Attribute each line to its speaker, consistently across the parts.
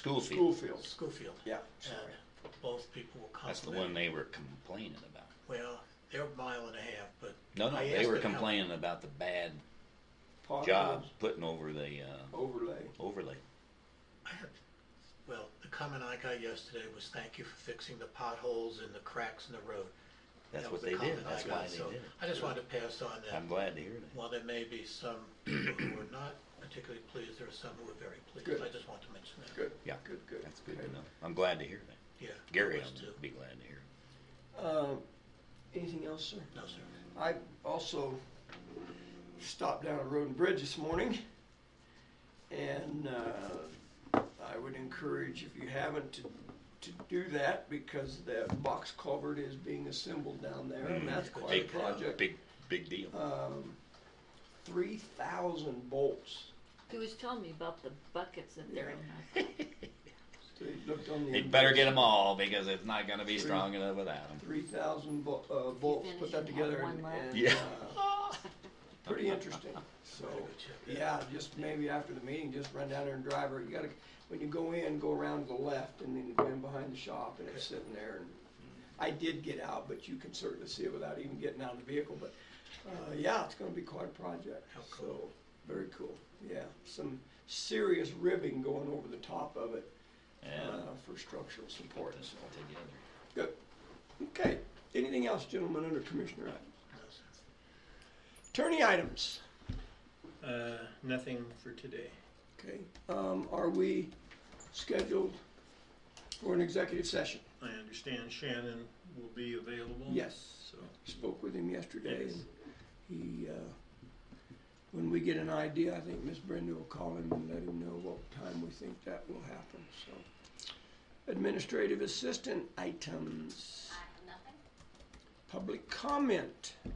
Speaker 1: Schoolfield,
Speaker 2: Schoolfield.
Speaker 3: Schofield.
Speaker 2: Yeah,
Speaker 3: And
Speaker 2: sorry.
Speaker 3: both people were complimenting.
Speaker 1: that's the one they were complaining about.
Speaker 3: Well, they're a mile and a half, but.
Speaker 1: No, no,
Speaker 3: I
Speaker 1: they
Speaker 3: asked
Speaker 1: were
Speaker 3: them how-
Speaker 1: complaining about the bad
Speaker 2: Potholes,
Speaker 1: job putting over the, uh,
Speaker 2: Overlay.
Speaker 1: overlay.
Speaker 3: I had, well, the comment I got yesterday was thank you for fixing the potholes and the cracks in the road.
Speaker 1: That's
Speaker 3: That
Speaker 1: what
Speaker 3: was the
Speaker 1: they did.
Speaker 3: comment I
Speaker 1: That's
Speaker 3: got,
Speaker 1: why they
Speaker 3: so
Speaker 1: did it.
Speaker 3: I just wanted to pass on that.
Speaker 1: I'm glad to hear that.
Speaker 3: While there may be some people who are not particularly pleased, there are some who are very pleased.
Speaker 2: Good.
Speaker 3: I just want to mention that.
Speaker 2: Good.
Speaker 1: Yeah,
Speaker 2: Good, good.
Speaker 1: That's good
Speaker 2: Okay.
Speaker 1: to know. I'm glad to hear that.
Speaker 3: Yeah. I
Speaker 1: Gary,
Speaker 3: was too.
Speaker 1: I'd be glad to hear. it.
Speaker 2: Um, anything else, sir?
Speaker 3: No, sir.
Speaker 2: I also stopped down at Road and Bridge this morning. And uh, I would encourage, if you haven't, to, to do that because that box culvert is being assembled down there. And that's quite a
Speaker 1: Mm. Big
Speaker 2: project.
Speaker 1: Big, big deal.
Speaker 3: Uh,
Speaker 2: Um, 3,000 bolts.
Speaker 4: He was telling me about the buckets that they're in.
Speaker 2: So you looked on the.
Speaker 1: They'd better get them all because it's not gonna be
Speaker 2: Three-
Speaker 1: strong enough without them.
Speaker 2: Three thousand uh, volts, put that
Speaker 4: finishing
Speaker 2: together
Speaker 4: on
Speaker 2: and,
Speaker 4: one lap?
Speaker 2: and,
Speaker 1: Yeah.
Speaker 2: uh, pretty interesting, so,
Speaker 3: Gotta go check that
Speaker 2: yeah, just maybe after the meeting, just run down there and drive her, you gotta, when you go in, go around to the left and then go in behind the shop and it's sitting there and I did get out, but you can certainly see it without even getting out of the vehicle, but, uh, yeah, it's gonna be quite a project,
Speaker 3: How
Speaker 2: so,
Speaker 3: cool.
Speaker 2: very cool, yeah, some serious ribbing going over the top of it,
Speaker 1: Yeah.
Speaker 2: uh, for structural support,
Speaker 1: Put this
Speaker 2: so.
Speaker 1: all together.
Speaker 2: Good. Okay. Anything else, gentlemen, under Commissioner items?
Speaker 3: No, sir.
Speaker 2: Attorney items.
Speaker 5: Uh, nothing for today.
Speaker 2: Okay. Um, are we scheduled for an executive session?
Speaker 5: I understand Shannon will be available.
Speaker 2: Yes.
Speaker 5: So,
Speaker 2: Spoke with him yesterday
Speaker 5: Yes.
Speaker 2: and he, uh, when we get an idea, I think Miss Brenda will call him and let him know what time we think that will happen, so. Administrative assistant items.
Speaker 6: I have nothing.
Speaker 2: Public comment.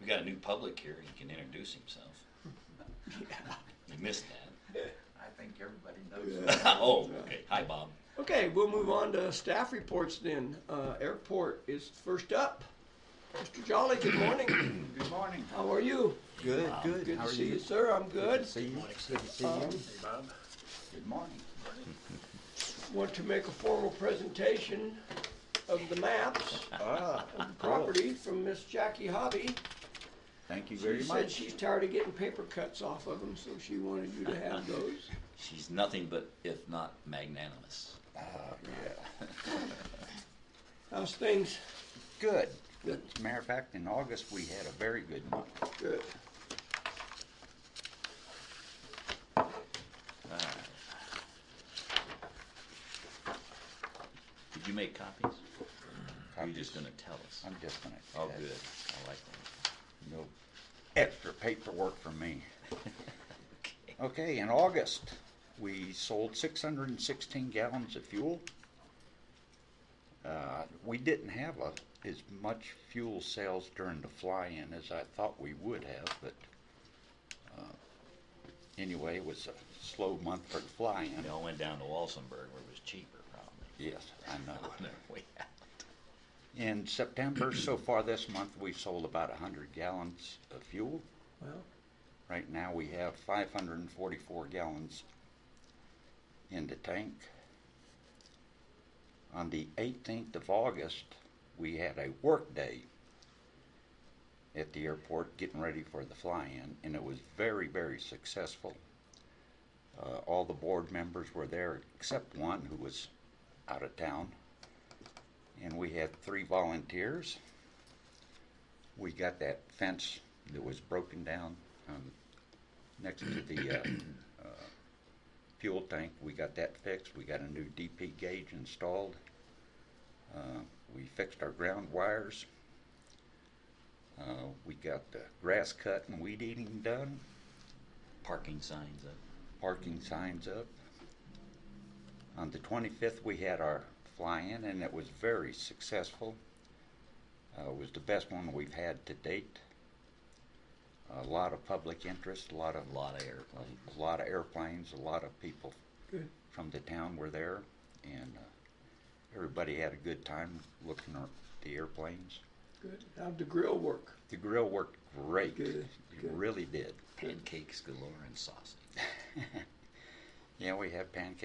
Speaker 1: We got a new public here. He can introduce himself. You missed that.
Speaker 7: I think everybody knows that.
Speaker 1: Oh, okay. Hi, Bob.
Speaker 2: Okay, we'll move on to staff reports then. Uh, airport is first up. Mr. Jolly, good morning.
Speaker 7: Good morning.
Speaker 2: How are you?
Speaker 7: Good, good.
Speaker 2: Good
Speaker 7: How
Speaker 2: to
Speaker 7: are
Speaker 2: see you,
Speaker 7: you?
Speaker 2: sir. I'm good.
Speaker 7: See you. Good to see
Speaker 2: Um,
Speaker 7: you.
Speaker 5: hey, Bob.
Speaker 7: Good morning.
Speaker 2: Want to make a formal presentation of the maps,
Speaker 7: Ah,
Speaker 2: of the property from Miss Jackie Hobby.
Speaker 7: Thank you
Speaker 2: She
Speaker 7: very
Speaker 2: said
Speaker 7: much.
Speaker 2: she's tired of getting paper cuts off of them, so she wanted you to have those.
Speaker 1: She's nothing but, if not magnanimous.
Speaker 2: How's things?
Speaker 7: Good. As a matter of fact, in August, we had a very good month.
Speaker 2: Good.
Speaker 1: Did you make copies? Or You're
Speaker 7: Copies.
Speaker 1: just gonna tell us.
Speaker 7: I'm just gonna.
Speaker 1: Oh, good. I like that.
Speaker 7: No extra paperwork for me. Okay, in August, we sold six hundred and sixteen gallons of fuel. Uh, we didn't have a, as much fuel sales during the fly-in as I thought we would have, but, uh, anyway, it was a slow month for the fly-in.
Speaker 1: They all went down to Walsenburg where it was cheaper, probably.
Speaker 7: Yes, I know.
Speaker 1: On their way out.
Speaker 7: In September, so far this month, we've sold about hundred gallons of fuel.
Speaker 2: Well,
Speaker 7: Right now, we have 544 gallons in the tank. On the 18th of August, we had a work day at the airport getting ready for the fly-in, and it was very, very successful. Uh, all the board members were there except one who was out of town, and we had three volunteers. We got that fence that was broken down um, next to the uh, uh, fuel tank. We got that fixed. We got a new DP gauge installed. Uh, we fixed our ground wires. Uh, we got the grass cut and weed eating done.
Speaker 1: Parking signs up.
Speaker 7: Parking signs up. On the 25th, we had our fly-in, and it was very successful. Uh, it was the best one we've had to date. A lot of public interest, a lot of
Speaker 1: A lot of airplanes.
Speaker 7: a lot of airplanes, a lot of people
Speaker 2: Good.
Speaker 7: from the town were there, and uh, everybody had a good time looking at the airplanes.
Speaker 2: good. How'd the grill work?
Speaker 7: The grill worked great.
Speaker 2: Good,
Speaker 7: It
Speaker 2: good.
Speaker 7: really did.
Speaker 1: Pancakes galore and sausage.
Speaker 7: Yeah, we had pancakes.